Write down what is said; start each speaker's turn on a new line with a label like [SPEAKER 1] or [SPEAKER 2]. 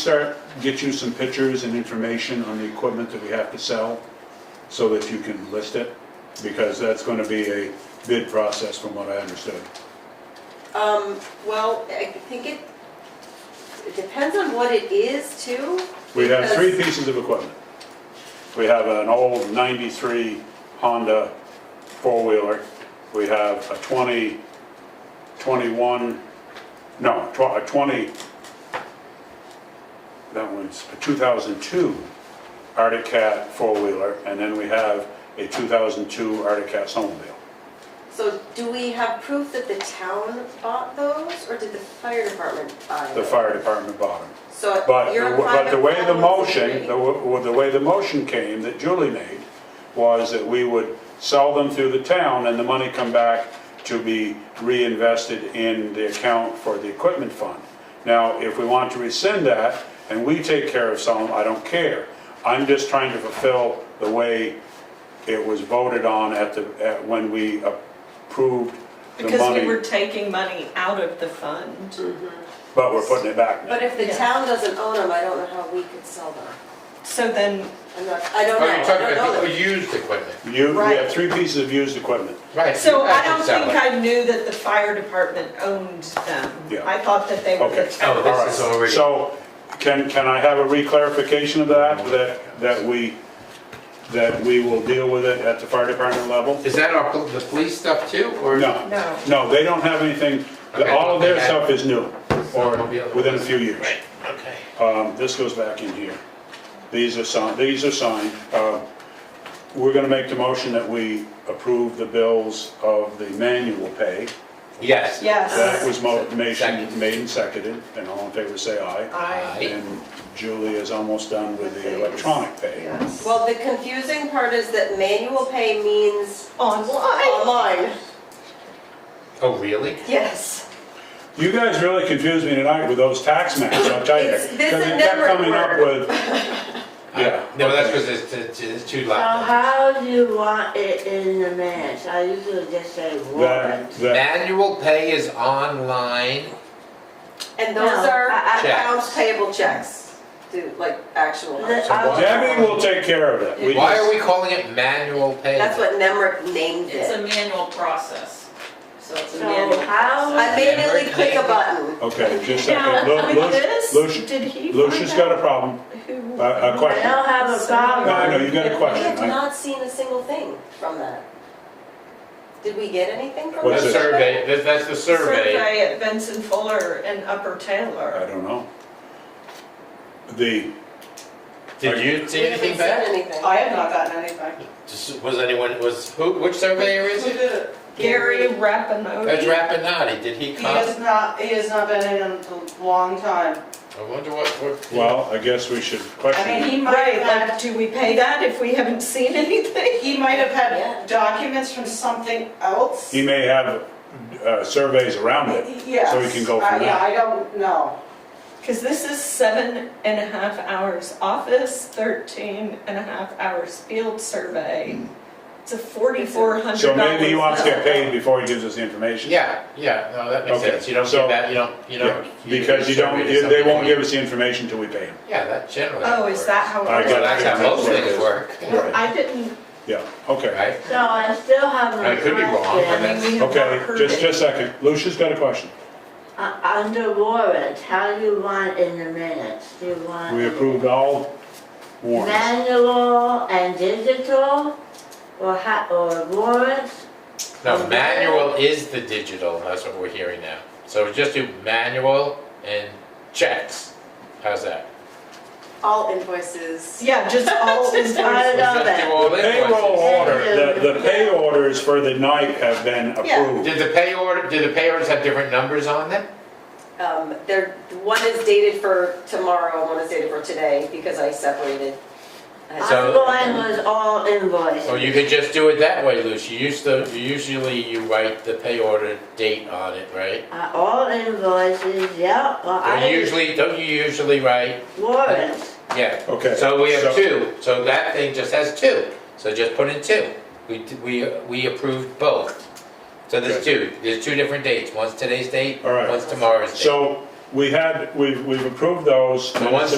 [SPEAKER 1] start, get you some pictures and information on the equipment that we have to sell, so that you can list it, because that's gonna be a bid process from what I understood.
[SPEAKER 2] Um, well, I think it, it depends on what it is too.
[SPEAKER 1] We have three
[SPEAKER 2] because-
[SPEAKER 1] pieces of equipment. We have an old 93 Honda four-wheeler. We have a 20, 21, no, tw- a 20, that one's a 2002 Arctic Cat four-wheeler, and then we have a 2002 Arctic Cat snowmobile.
[SPEAKER 2] So do we have proof that the town bought those or did the fire department buy them?
[SPEAKER 1] The fire department bought them.
[SPEAKER 2] So
[SPEAKER 1] But,
[SPEAKER 2] you're
[SPEAKER 1] the- but the
[SPEAKER 2] applying
[SPEAKER 1] way the
[SPEAKER 2] a policy
[SPEAKER 1] motion,
[SPEAKER 2] rate.
[SPEAKER 1] the, w- the way the motion came that Julie made was that we would sell them through the town and the money come back to be reinvested in the account for the equipment fund. Now, if we want to rescind that and we take care of some, I don't care. I'm just trying to fulfill the way it was voted on at the, at, when we approved the
[SPEAKER 3] Because we were
[SPEAKER 1] money,
[SPEAKER 3] taking money out of the fund.
[SPEAKER 1] but we're putting it back now.
[SPEAKER 2] But if the
[SPEAKER 3] Yeah.
[SPEAKER 2] town doesn't own them, I don't know how we could sell them.
[SPEAKER 3] So then,
[SPEAKER 2] I'm not, I don't know,
[SPEAKER 4] Are you
[SPEAKER 2] I
[SPEAKER 4] talking
[SPEAKER 2] don't know
[SPEAKER 4] about the
[SPEAKER 2] them.
[SPEAKER 4] used equipment?
[SPEAKER 1] You, we have
[SPEAKER 3] Right.
[SPEAKER 1] three pieces of used equipment.
[SPEAKER 4] Right.
[SPEAKER 3] so
[SPEAKER 4] you
[SPEAKER 3] I
[SPEAKER 4] can
[SPEAKER 3] don't
[SPEAKER 4] sell
[SPEAKER 3] think
[SPEAKER 4] it.
[SPEAKER 3] I knew that the fire department owned them.
[SPEAKER 1] Yeah.
[SPEAKER 3] I thought that they were the
[SPEAKER 1] Okay.
[SPEAKER 4] Oh,
[SPEAKER 3] town.
[SPEAKER 4] this is already.
[SPEAKER 1] So, can, can I have a reclarification of that, that, that we, that we will deal with it at the fire department level?
[SPEAKER 4] Is that our, pol- the police stuff too, or?
[SPEAKER 1] No.
[SPEAKER 3] No.
[SPEAKER 1] No, they don't have anything, the- all of their stuff is new, or within a few years.
[SPEAKER 4] Right, okay.
[SPEAKER 1] Um, this goes back in here. These are signed, these are signed. Uh, We're gonna make the motion that we approve the bills of the manual pay.
[SPEAKER 4] Yes.
[SPEAKER 1] That
[SPEAKER 3] Yes.
[SPEAKER 1] was mo-
[SPEAKER 4] Second.
[SPEAKER 1] motion made and seconded, and all in favor say aye.
[SPEAKER 3] I,
[SPEAKER 4] Aye.
[SPEAKER 1] And Julie is almost done with the electronic pay.
[SPEAKER 3] yes.
[SPEAKER 2] Well, the confusing part is that manual pay means
[SPEAKER 3] Online?
[SPEAKER 2] online.
[SPEAKER 4] Oh, really?
[SPEAKER 2] Yes.
[SPEAKER 1] You guys really confused me tonight with those tax maps, I'll tell you.
[SPEAKER 2] It's- this
[SPEAKER 1] Because it
[SPEAKER 2] and
[SPEAKER 1] kept
[SPEAKER 2] network
[SPEAKER 1] coming up with, yeah.
[SPEAKER 4] No, that's
[SPEAKER 1] okay.
[SPEAKER 4] because it's, it's- it's too
[SPEAKER 5] So
[SPEAKER 4] loud.
[SPEAKER 5] how do you want it in the minutes? I usually just say
[SPEAKER 1] That,
[SPEAKER 5] warrant.
[SPEAKER 1] that,
[SPEAKER 4] Manual pay is online.
[SPEAKER 2] And those
[SPEAKER 5] No,
[SPEAKER 2] are
[SPEAKER 5] I-
[SPEAKER 4] I-
[SPEAKER 2] accounts payable checks, dude, like actual.
[SPEAKER 5] The-
[SPEAKER 2] ones.
[SPEAKER 5] I-
[SPEAKER 1] Debbie will take care of that. We
[SPEAKER 4] Why
[SPEAKER 1] just-
[SPEAKER 4] are we calling it manual pay?
[SPEAKER 2] That's what Nemrick named
[SPEAKER 6] It's a
[SPEAKER 2] it.
[SPEAKER 6] manual process, so it's a
[SPEAKER 5] So
[SPEAKER 6] manual.
[SPEAKER 5] how,
[SPEAKER 2] I Immediately click a button.
[SPEAKER 1] Okay, just a
[SPEAKER 3] Now,
[SPEAKER 1] second. Lu-
[SPEAKER 3] with
[SPEAKER 1] Lu-
[SPEAKER 3] this,
[SPEAKER 1] Lucia-
[SPEAKER 3] did he?
[SPEAKER 1] Lucia's
[SPEAKER 3] find
[SPEAKER 1] got a problem,
[SPEAKER 3] out who-
[SPEAKER 1] a a
[SPEAKER 5] I
[SPEAKER 1] question.
[SPEAKER 5] don't have a problem.
[SPEAKER 1] No, I know, you got a
[SPEAKER 2] We have
[SPEAKER 1] question. I-
[SPEAKER 2] not seen a single thing from that. Did we get anything from
[SPEAKER 1] What's
[SPEAKER 4] The
[SPEAKER 1] it?
[SPEAKER 2] that?
[SPEAKER 4] survey, that's, that's the survey.
[SPEAKER 3] Survey at Benson Fuller and Upper
[SPEAKER 1] I
[SPEAKER 3] Taylor.
[SPEAKER 1] don't know. The,
[SPEAKER 4] Did you see
[SPEAKER 2] We haven't
[SPEAKER 4] anything
[SPEAKER 2] seen
[SPEAKER 4] back?
[SPEAKER 2] anything.
[SPEAKER 3] have not gotten anything.
[SPEAKER 4] Just- Was anyone, was, who, which surveyor is it?
[SPEAKER 3] Gary Rappanoe.
[SPEAKER 4] That's Rappinati, did he
[SPEAKER 7] He
[SPEAKER 4] come?
[SPEAKER 7] has not, he has not been in a long time.
[SPEAKER 4] I wonder what, what.
[SPEAKER 1] well, I guess we should question.
[SPEAKER 7] I mean,
[SPEAKER 1] it.
[SPEAKER 7] he might
[SPEAKER 3] Right,
[SPEAKER 7] have
[SPEAKER 3] like,
[SPEAKER 7] had,
[SPEAKER 3] do we pay that if we haven't seen anything?
[SPEAKER 7] he might have
[SPEAKER 2] Yeah.
[SPEAKER 7] had documents from something else.
[SPEAKER 1] He may have uh, surveys around it.
[SPEAKER 7] Yes.
[SPEAKER 1] so we can go
[SPEAKER 7] Uh,
[SPEAKER 1] from
[SPEAKER 7] Yeah,
[SPEAKER 1] there.
[SPEAKER 7] I don't know.
[SPEAKER 3] Because this is seven and a half hours office, 13 and a half hours field survey. It's a $4,400.
[SPEAKER 1] So maybe he wants to get paid before he gives us the information.
[SPEAKER 4] Yeah, yeah, no, that makes
[SPEAKER 1] Okay,
[SPEAKER 4] sense. You don't
[SPEAKER 1] so-
[SPEAKER 4] give that, you don't, you
[SPEAKER 1] Yeah,
[SPEAKER 4] don't.
[SPEAKER 1] Because you don't,
[SPEAKER 4] survey to
[SPEAKER 1] they won't
[SPEAKER 4] somebody.
[SPEAKER 1] give us the information until we pay him.
[SPEAKER 4] Yeah, that generally.
[SPEAKER 3] Oh, is that how
[SPEAKER 1] I
[SPEAKER 3] it
[SPEAKER 4] Well,
[SPEAKER 1] got
[SPEAKER 3] works?
[SPEAKER 4] that's how most things work,
[SPEAKER 3] Well, I didn't,
[SPEAKER 1] Yeah, okay.
[SPEAKER 4] right?
[SPEAKER 5] So I still have
[SPEAKER 4] I
[SPEAKER 5] a
[SPEAKER 4] could be wrong, but
[SPEAKER 5] question.
[SPEAKER 4] that's-
[SPEAKER 3] I mean, we have not
[SPEAKER 1] Okay,
[SPEAKER 3] heard
[SPEAKER 1] just,
[SPEAKER 3] it.
[SPEAKER 1] just a second. Lucia's got a question.
[SPEAKER 5] Uh, Under warrant, how do you want it in the minutes? Do you want?
[SPEAKER 1] We approved all warrants.
[SPEAKER 5] Manual and digital, or ha, or warrants? Mm-hmm.
[SPEAKER 4] No, manual is the digital, and that's what we're hearing now. So just do manual and checks. How's that?
[SPEAKER 2] All invoices.
[SPEAKER 3] yeah, just all is.
[SPEAKER 5] Oh, I don't know
[SPEAKER 4] Just do
[SPEAKER 5] that.
[SPEAKER 4] all
[SPEAKER 1] The payroll
[SPEAKER 4] invoices.
[SPEAKER 1] order, the, the pay orders for the night have been approved.
[SPEAKER 4] Did the pay order, did the pay orders have different numbers on them?
[SPEAKER 2] Um, there, one is dated for tomorrow, one is dated for today, because I separated. I-
[SPEAKER 4] So-
[SPEAKER 5] I'm going with all invoices.
[SPEAKER 4] Or you could just do it that way, Lucy. You used to, you usually you write the pay order date on it, right?
[SPEAKER 5] Uh, all invoices, yeah, well, I.
[SPEAKER 4] Don't usually, don't you usually write,
[SPEAKER 5] Warrants.
[SPEAKER 4] yeah.
[SPEAKER 1] Okay,
[SPEAKER 4] So we have
[SPEAKER 1] so-
[SPEAKER 4] two, so that thing just has two, so just put in two. We, d- we, we approved both. So there's two, there's two different dates, one's today's date,
[SPEAKER 1] All right.
[SPEAKER 4] one's tomorrow's date.
[SPEAKER 1] So we had, we've, we've approved those.
[SPEAKER 4] The ones